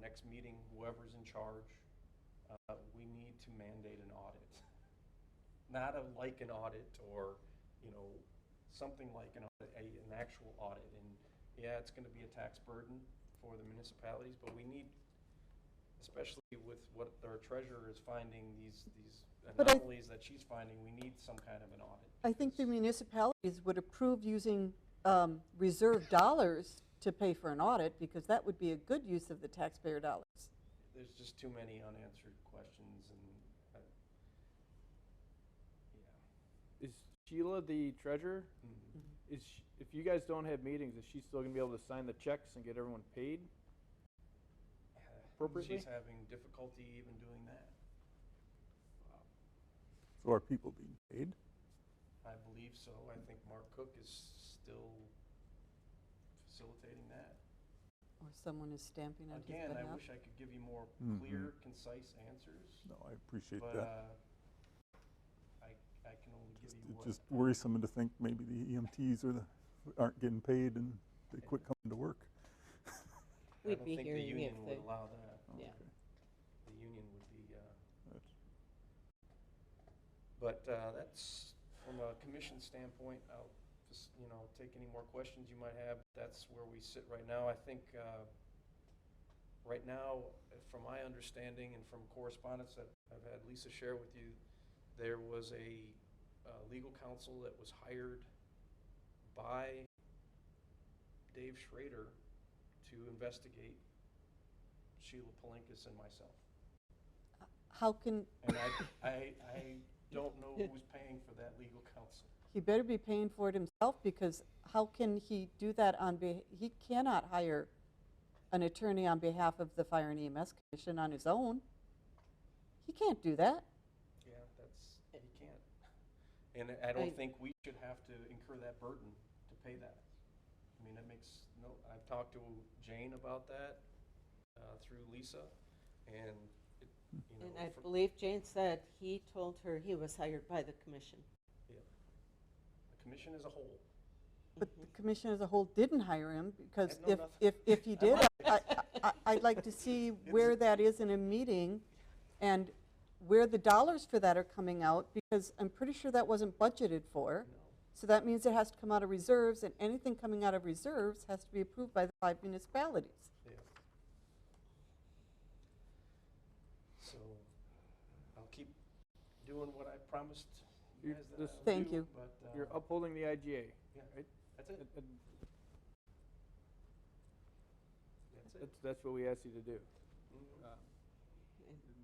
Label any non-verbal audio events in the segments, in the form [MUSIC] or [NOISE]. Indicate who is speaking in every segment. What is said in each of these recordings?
Speaker 1: next meeting, whoever's in charge, uh, we need to mandate an audit. [LAUGHS] Not a, like an audit or, you know, something like an audit, a- an actual audit. And yeah, it's going to be a tax burden for the municipalities, but we need, especially with what our treasurer is finding, these, these
Speaker 2: I-
Speaker 1: anomalies that she's finding, we need some kind of an audit.
Speaker 2: I think the municipalities would approve using um, reserve dollars to pay for an audit, because that would be a good use of the taxpayer dollars.
Speaker 1: there's just too many unanswered questions and, uh, yeah.
Speaker 3: Is Sheila the treasurer?
Speaker 1: Mhm.
Speaker 3: Is sh if you guys don't have meetings, is she still gonna be able to sign the checks and get everyone paid? Appropriately?
Speaker 1: She's having difficulty even doing that. Uh,
Speaker 4: So are people being paid?
Speaker 1: I believe so. I think Mark Cook is still facilitating that.
Speaker 2: Or someone is stamping out his
Speaker 1: Again, I
Speaker 2: behalf.
Speaker 1: wish I could give you more
Speaker 4: Mhm.
Speaker 1: clear, concise answers,
Speaker 4: No, I appreciate
Speaker 1: but,
Speaker 4: that.
Speaker 1: uh, I, I can only give
Speaker 4: Just-
Speaker 1: you
Speaker 4: It's
Speaker 1: what.
Speaker 4: just worrisome to think maybe the EMTs are the, aren't getting paid and they quit coming to work.
Speaker 1: I
Speaker 5: We'd
Speaker 1: don't
Speaker 5: be
Speaker 1: think the
Speaker 5: hearing if
Speaker 1: union would
Speaker 5: the-
Speaker 1: allow that.
Speaker 4: Oh,
Speaker 5: Yeah.
Speaker 4: okay.
Speaker 1: The union would be, uh,
Speaker 4: That's-
Speaker 1: But uh, that's, from a commission standpoint, I'll just, you know, take any more questions you might have. That's where we sit right now. I think, uh, right now, from my understanding and from correspondence that I've had Lisa share with you, there was a uh, legal counsel that was hired by Dave Schrader to investigate Sheila Palinkas and myself.
Speaker 2: How can,
Speaker 1: And I, I, I don't know who's paying for that legal counsel.
Speaker 2: he better be paying for it himself, because how can he do that on, beh- he cannot hire an attorney on behalf of the Fire and EMS Commission on his own. He can't do that.
Speaker 1: Yeah, that's, he can't. And I don't
Speaker 5: I-
Speaker 1: think we should have to incur that burden to pay that. I mean, that makes no, I've talked to Jane about that, uh, through Lisa, and it, you know.
Speaker 5: And I
Speaker 1: for-
Speaker 5: believe Jane said he told her he was hired by the commission.
Speaker 1: The commission as a whole.
Speaker 2: But the commission as a whole didn't hire him, because
Speaker 1: know
Speaker 2: if,
Speaker 1: nothing.
Speaker 2: if, if he did, I, I, I'd like to see where that is in a meeting and where the dollars for that are coming out, because I'm pretty sure that wasn't budgeted for.
Speaker 1: No.
Speaker 2: So that means it has to come out of reserves, and anything coming out of reserves has to be approved by the five municipalities.
Speaker 1: Yeah. So I'll keep doing what I promised you
Speaker 3: You-
Speaker 1: guys that I
Speaker 3: this-
Speaker 1: would
Speaker 2: Thank
Speaker 1: do,
Speaker 2: you.
Speaker 1: But,
Speaker 3: You're
Speaker 1: uh,
Speaker 3: upholding the IGA.
Speaker 1: that's it,
Speaker 3: That- that-
Speaker 1: that's it.
Speaker 3: That's, that's what we asked you to do.
Speaker 1: Mhm.
Speaker 3: Um,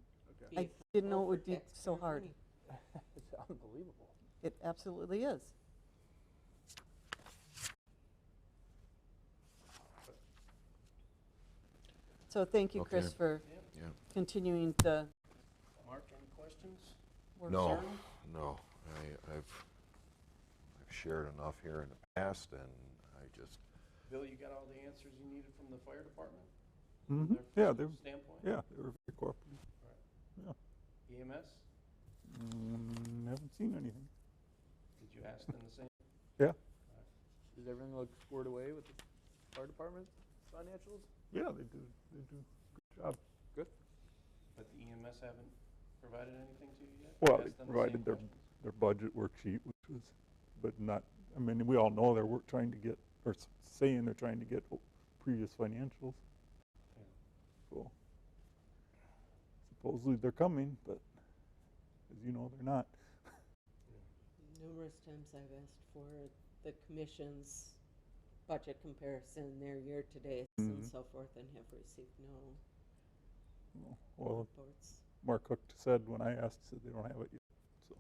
Speaker 5: And
Speaker 3: Okay.
Speaker 2: I
Speaker 5: be
Speaker 2: didn't know it
Speaker 5: over
Speaker 2: would be
Speaker 5: taxpayer
Speaker 2: so hard.
Speaker 5: money.
Speaker 3: It's unbelievable.
Speaker 2: It absolutely is. So thank you, Chris,
Speaker 6: Okay.
Speaker 2: for
Speaker 1: Yeah.
Speaker 2: continuing the
Speaker 1: Mark, any questions?
Speaker 2: work.
Speaker 6: No,
Speaker 1: Sharon?
Speaker 6: no, I, I've, I've shared enough here in the past, and I just,
Speaker 1: Bill, you got all the answers you needed from the fire department? from
Speaker 4: Mhm.
Speaker 1: their
Speaker 4: Yeah, they're,
Speaker 1: Standpoint? E
Speaker 4: yeah, they were very cooperative.
Speaker 1: EMS,
Speaker 4: Mm, Haven't seen anything.
Speaker 1: did you ask them the same?
Speaker 3: Does everything look squared away with the fire department financials?
Speaker 4: Yeah, they do, they do a good job.
Speaker 1: But the EMS haven't provided anything to you yet?
Speaker 4: Well,
Speaker 1: You
Speaker 4: they
Speaker 1: asked them the
Speaker 4: provided
Speaker 1: same
Speaker 4: their,
Speaker 1: questions?
Speaker 4: their budget worksheet, which was, but not, I mean, we all know they're wor- trying to get, or s- saying they're trying to get o- previous financials.
Speaker 1: Yeah.
Speaker 4: So supposedly they're coming, but as you know, they're not.
Speaker 5: Numerous times I've asked for the commission's budget comparison, their year-to-date and
Speaker 2: Mm-hmm.
Speaker 4: Mhm.
Speaker 5: so forth, and have received no
Speaker 4: Well,
Speaker 5: reports.
Speaker 4: Mark Hook said when I asked, said they don't have it yet, so.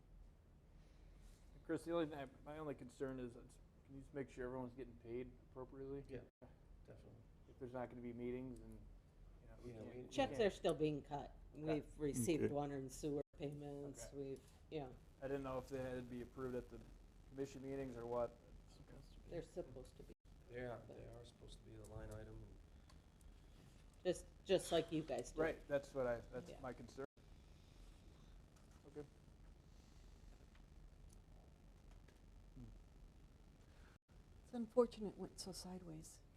Speaker 3: Chris, the only thing, I- my only concern is, it's- can you just make sure everyone's getting paid appropriately?
Speaker 1: Yeah, definitely.
Speaker 3: If there's not gonna be meetings and, you
Speaker 1: Yeah,
Speaker 3: know, we
Speaker 1: we-
Speaker 3: can't. we
Speaker 5: Checks
Speaker 3: can't-
Speaker 5: are still being cut. We've received
Speaker 4: Okay.
Speaker 5: water and sewer payments,
Speaker 3: Mm-hmm. Okay.
Speaker 5: we've, yeah,
Speaker 3: I didn't know if they had to be approved at the commission meetings or what.
Speaker 5: they're supposed to be,
Speaker 1: Yeah, they are supposed to be the line item. and-
Speaker 5: just, just like you guys do.
Speaker 3: Right, that's what I, that's
Speaker 5: Yeah.
Speaker 3: my concern. Okay.
Speaker 2: It's unfortunate it went so sideways.